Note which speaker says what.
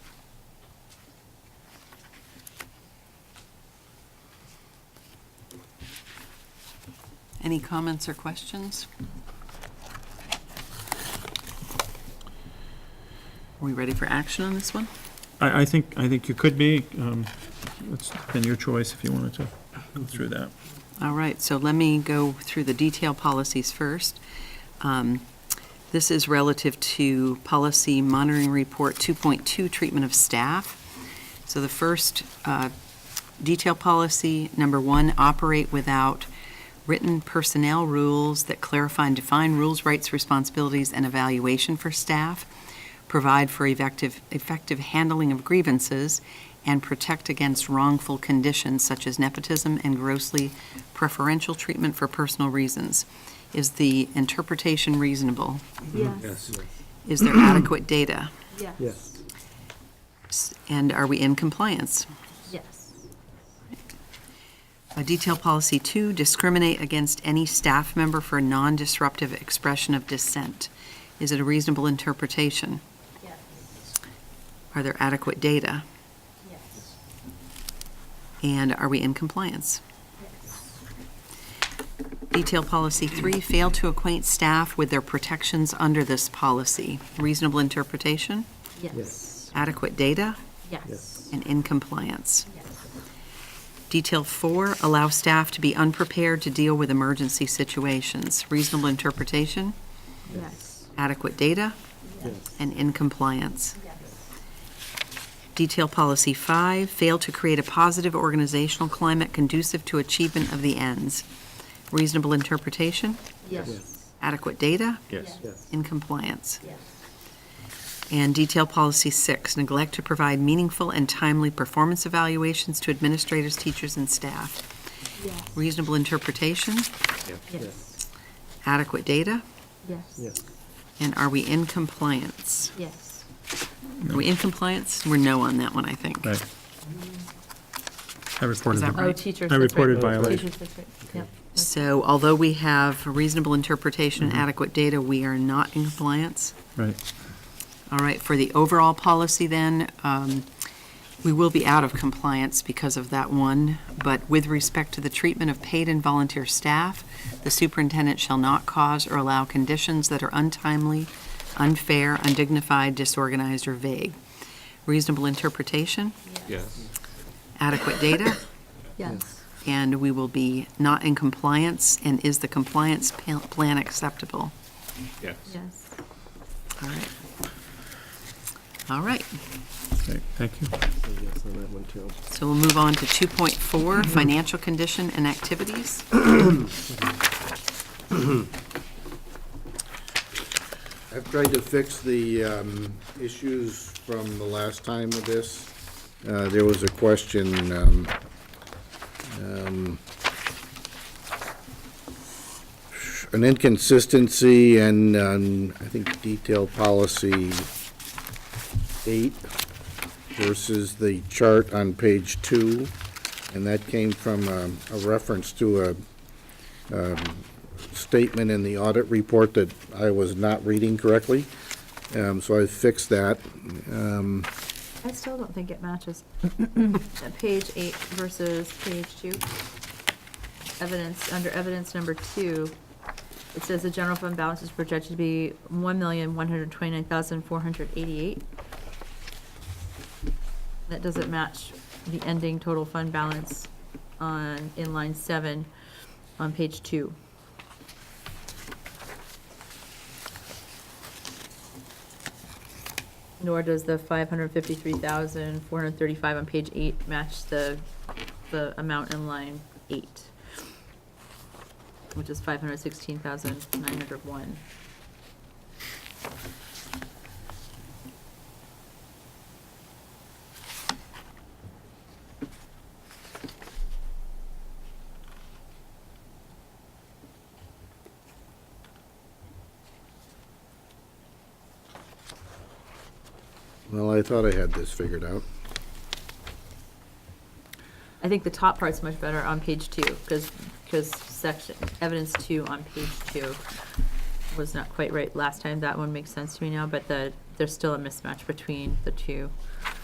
Speaker 1: Any comments or questions? Are we ready for action on this one?
Speaker 2: I, I think, I think you could be. um, It's been your choice if you wanted to go through that.
Speaker 1: All right, so let me go through the detail policies first. Um, This is relative to Policy Monitoring Report 2.2, Treatment of Staff. So the first uh, detail policy, number one, operate without written personnel rules that clarify and define rules, rights, responsibilities, and evaluation for staff, provide for effective, effective handling of grievances, and protect against wrongful conditions such as nepotism and grossly preferential treatment for personal reasons. Is the interpretation reasonable?
Speaker 3: Yes.
Speaker 1: Is there adequate data?
Speaker 3: Mm-hmm. Yes.
Speaker 4: Yes.
Speaker 1: S- And are we in compliance?
Speaker 3: Yes.
Speaker 1: A detail policy two, discriminate against any staff member for non-disruptive expression of dissent. Is it a reasonable interpretation?
Speaker 3: Yes.
Speaker 1: Are there adequate data?
Speaker 3: Yes.
Speaker 1: And are we in compliance?
Speaker 3: Yes.
Speaker 1: Detail policy three, fail to acquaint staff with their protections under this policy. Reasonable interpretation,
Speaker 3: Yes.
Speaker 1: adequate data,
Speaker 3: Yes.
Speaker 1: and in compliance.
Speaker 3: Yes.
Speaker 1: Detail four, allow staff to be unprepared to deal with emergency situations. Reasonable interpretation,
Speaker 3: Yes.
Speaker 1: adequate data, and in compliance. Detail policy five, fail to create a positive organizational climate conducive to achievement of the ends. Reasonable interpretation,
Speaker 3: Yes.
Speaker 1: adequate data,
Speaker 4: Yes.
Speaker 1: in compliance.
Speaker 3: Yes.
Speaker 1: And detail policy six, neglect to provide meaningful and timely performance evaluations to administrators, teachers, and staff.
Speaker 3: Yes.
Speaker 1: Reasonable interpretation,
Speaker 3: Yes.
Speaker 1: adequate data,
Speaker 3: Yes.
Speaker 4: Yes.
Speaker 1: and are we in compliance?
Speaker 3: Yes.
Speaker 1: Are we in compliance? We're no on that one, I think.
Speaker 2: Right. I reported
Speaker 1: that
Speaker 2: them.
Speaker 1: right?
Speaker 5: Oh, teachers.
Speaker 2: I
Speaker 5: that's right.
Speaker 2: reported violation.
Speaker 5: Teachers, that's right. Yep.
Speaker 1: So although we have reasonable interpretation and adequate data, we are not in compliance.
Speaker 2: Right.
Speaker 1: All right, for the overall policy then, um, we will be out of compliance because of that one, but with respect to the treatment of paid and volunteer staff, the superintendent shall not cause or allow conditions that are untimely, unfair, undignified, disorganized, or vague. Reasonable interpretation,
Speaker 4: Yes.
Speaker 1: adequate data,
Speaker 5: Yes.
Speaker 1: and we will be not in compliance, and is the compliance pa- plan acceptable?
Speaker 4: Yes.
Speaker 5: Yes.
Speaker 1: All right. All right.
Speaker 2: Okay, Thank you.
Speaker 4: Say yes on that one too.
Speaker 1: So we'll move on to 2.4, financial condition and activities.
Speaker 6: I've tried to fix the um, issues from the last time of this. Uh, There was a question, um, um, an inconsistency and um, I think detailed policy eight versus the chart on page two. And that came from um, a reference to a statement in the audit report that I was not reading correctly. Um, So I fixed that. Um,
Speaker 5: I still don't think it matches. Uh, Page eight versus page two. Evidence, under evidence number two, it says the general fund balance is projected to be one million, one hundred twenty-nine thousand, four hundred eighty-eight. That doesn't match the ending total fund balance on, in line seven, on page two. Nor does the five hundred fifty-three thousand, four hundred thirty-five on page eight match the, the amount in line eight, which is five hundred sixteen thousand, nine hundred one.
Speaker 6: Well, I thought I had this figured out.
Speaker 5: I think the top part's much better on page two, because, because section, evidence two on page two was not quite right last time. That one makes sense to me now, but the, there's still a mismatch between the two.